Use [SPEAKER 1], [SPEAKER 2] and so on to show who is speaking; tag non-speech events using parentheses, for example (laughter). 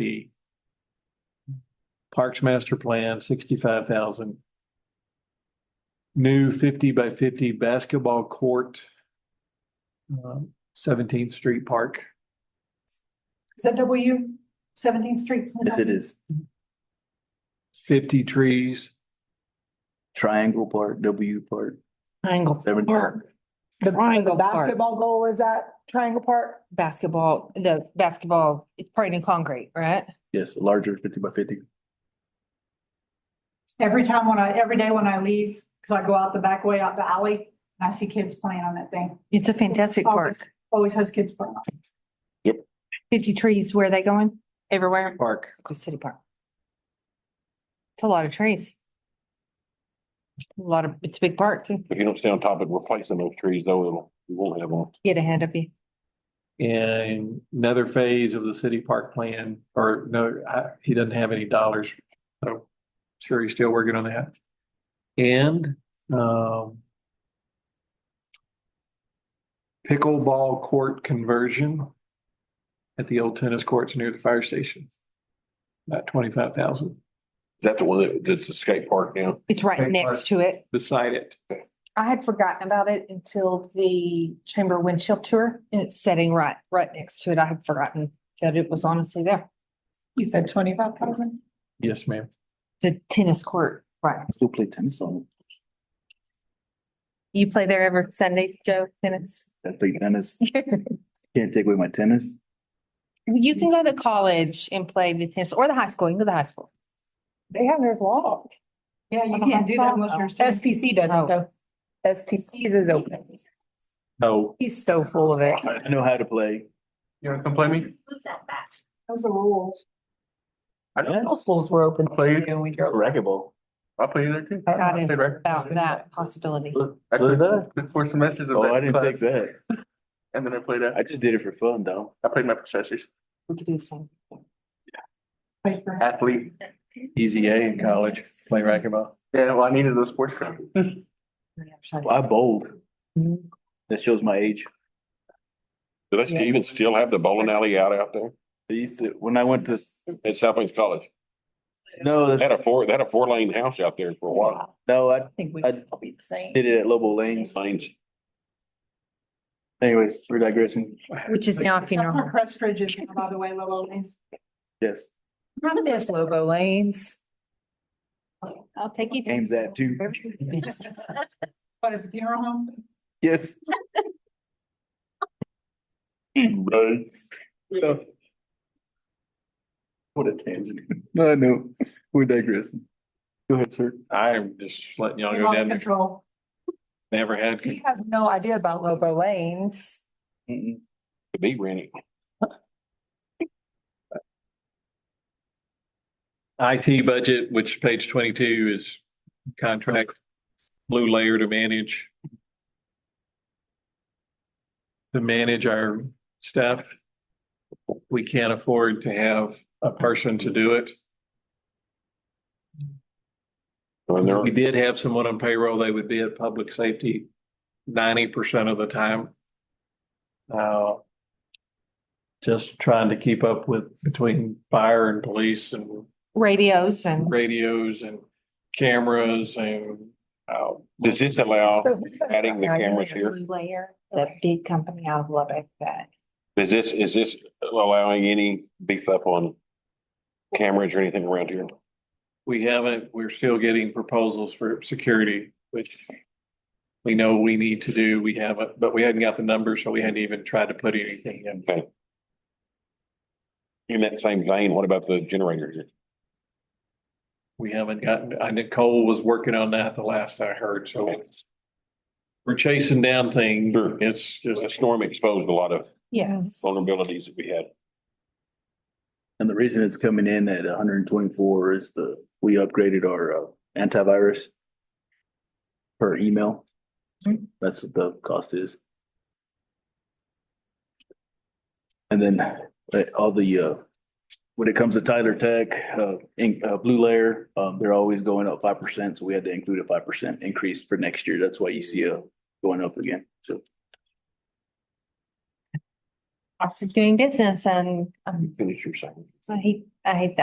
[SPEAKER 1] the Parks Master Plan, sixty-five thousand. New fifty by fifty basketball court, um, Seventeenth Street Park.
[SPEAKER 2] Is that W seventeenth street?
[SPEAKER 3] Yes, it is.
[SPEAKER 1] fifty trees.
[SPEAKER 3] Triangle part, W part,
[SPEAKER 4] Triangle
[SPEAKER 3] Seven.
[SPEAKER 4] Park. The triangle park,
[SPEAKER 2] Basketball goal is at Triangle Park?
[SPEAKER 4] basketball, the basketball, it's pouring in concrete, right?
[SPEAKER 3] yes, larger fifty by fifty.
[SPEAKER 2] Every time when I, every day when I leave, because I go out the back way, out the alley, and I see kids playing on that thing.
[SPEAKER 4] It's a fantastic
[SPEAKER 2] Always-
[SPEAKER 4] park.
[SPEAKER 2] Always has kids playing on it.
[SPEAKER 4] Fifty trees, where are they going? Everywhere?
[SPEAKER 1] Park.
[SPEAKER 4] Go City Park. It's a lot of trees. A Lot of, it's a big park too.
[SPEAKER 5] If you don't stay on top of replacing those trees, though, it'll, you won't have them.
[SPEAKER 4] Get ahead of you.
[SPEAKER 1] And another phase of the city park plan, or no, I- he doesn't have any dollars. So sure, he's still working on that. And, um, pickleball court conversion at the old tennis courts near the fire station. About twenty-five thousand
[SPEAKER 5] Is that the one that, that's a skate park now?
[SPEAKER 4] It's
[SPEAKER 1] Big
[SPEAKER 4] right
[SPEAKER 1] park.
[SPEAKER 4] next to it.
[SPEAKER 1] beside it.
[SPEAKER 4] I had forgotten about it until the Chamber Windshield Tour and it's setting right, right next to it. I had forgotten that it was honestly there.
[SPEAKER 2] You said twenty-five thousand?
[SPEAKER 1] Yes, ma'am.
[SPEAKER 4] The tennis court, right.
[SPEAKER 3] Still play tennis on
[SPEAKER 4] You play there every Sunday, Joe, (laughs) tennis?
[SPEAKER 3] it. I play tennis. Can't take away my tennis.
[SPEAKER 4] You can go to college and play the tennis or the high school. You can go to the high school. Uh-huh.
[SPEAKER 6] They have theirs locked.
[SPEAKER 2] Yeah, you
[SPEAKER 6] can't do that
[SPEAKER 2] most
[SPEAKER 6] SPC doesn't
[SPEAKER 4] Oh.
[SPEAKER 6] though. SPC's is open.
[SPEAKER 1] No.
[SPEAKER 6] He's so full of it.
[SPEAKER 3] I know how to play.
[SPEAKER 1] You wanna come play me?
[SPEAKER 2] Those are rules.
[SPEAKER 5] I
[SPEAKER 6] Those schools were open.
[SPEAKER 5] Play-
[SPEAKER 6] when we drove.
[SPEAKER 5] racquetball. I play there too.
[SPEAKER 4] Excited about that possibility.
[SPEAKER 5] I
[SPEAKER 3] Play that?
[SPEAKER 5] played four semesters of
[SPEAKER 3] Oh, I didn't
[SPEAKER 5] that
[SPEAKER 3] take
[SPEAKER 5] class,
[SPEAKER 3] that.
[SPEAKER 5] and then I played that.
[SPEAKER 3] I just did it for fun though.
[SPEAKER 5] I played my professors.
[SPEAKER 4] We could do something.
[SPEAKER 5] Athlete.
[SPEAKER 3] Easy A in college, playing racquetball.
[SPEAKER 5] Yeah, well, I needed those sports. ground.
[SPEAKER 3] Well, I bowled. That shows my age.
[SPEAKER 7] Do they even still have the bowling alley out out there
[SPEAKER 3] I used to, when I went to,
[SPEAKER 7] at South Plains College?
[SPEAKER 3] no,
[SPEAKER 7] They had
[SPEAKER 3] that's,
[SPEAKER 7] a four, they had a four lane house out there for a while.
[SPEAKER 3] no, I
[SPEAKER 6] I think we
[SPEAKER 3] I-
[SPEAKER 6] should all be the same.
[SPEAKER 3] did it at Lobo Lanes.
[SPEAKER 7] Lanes.
[SPEAKER 3] Anyways, we're digressing.
[SPEAKER 4] Which is now a funeral.
[SPEAKER 2] (laughs)
[SPEAKER 4] home.
[SPEAKER 2] Crestridge is, by the way, Lolo. Lanes.
[SPEAKER 3] Yes,
[SPEAKER 6] Remember this Lobo Lanes?
[SPEAKER 4] I'll take you. to-
[SPEAKER 3] games that
[SPEAKER 4] (laughs)
[SPEAKER 3] too.
[SPEAKER 2] But it's a funeral home?
[SPEAKER 3] Yes.
[SPEAKER 5] What a tangent.
[SPEAKER 3] No, I know. We're digressing. Go ahead, sir.
[SPEAKER 1] I'm just letting y'all
[SPEAKER 2] You
[SPEAKER 1] go
[SPEAKER 2] lost
[SPEAKER 1] down there.
[SPEAKER 2] control.
[SPEAKER 1] Never had.
[SPEAKER 6] You have no idea about Lobo Lanes.
[SPEAKER 3] Mm-mm.
[SPEAKER 7] To be rented.
[SPEAKER 1] IT budget, which page twenty-two is contract blue layer to manage. To manage our staff. We can't afford to have a person to do it.
[SPEAKER 7] And
[SPEAKER 1] If
[SPEAKER 7] they're,
[SPEAKER 1] we did have someone on payroll, they would be at public safety ninety percent of the time. Uh, just trying to keep up with between fire and police and
[SPEAKER 4] Radios and
[SPEAKER 1] radios and cameras and
[SPEAKER 7] uh, does this allow,
[SPEAKER 6] So who goes
[SPEAKER 4] (laughs)
[SPEAKER 7] adding the
[SPEAKER 6] out there?
[SPEAKER 7] cameras here?
[SPEAKER 4] Blue Layer, that big company out of Lubbock that
[SPEAKER 7] is this, is this allowing any beef up on cameras or anything around here?
[SPEAKER 1] We haven't, we're still getting proposals for security, which we know we need to do. We haven't, but we hadn't got the numbers, so we hadn't even tried to put anything in.
[SPEAKER 7] Okay. In that same vein, what about the generators?
[SPEAKER 1] We haven't gotten, I Nicole was working on that the last I heard, so we're chasing down things.
[SPEAKER 7] Sure.
[SPEAKER 1] It's
[SPEAKER 7] The
[SPEAKER 1] just,
[SPEAKER 7] storm exposed a lot of
[SPEAKER 4] Yes.
[SPEAKER 7] vulnerabilities that we had.
[SPEAKER 3] And the reason it's coming in at hundred and twenty-four is the, we upgraded our uh, antivirus per email.
[SPEAKER 6] Hmm.
[SPEAKER 3] That's what the cost is. And then uh, all the, uh, when it comes to Tyler Tech, uh, in, uh, Blue Layer, um, they're always going up five percent. So we had to include a five percent increase for next year. uh, That's why you see a going up again. So
[SPEAKER 4] cost of doing business and um,
[SPEAKER 5] Finish your sentence.
[SPEAKER 4] I hate, I hate that.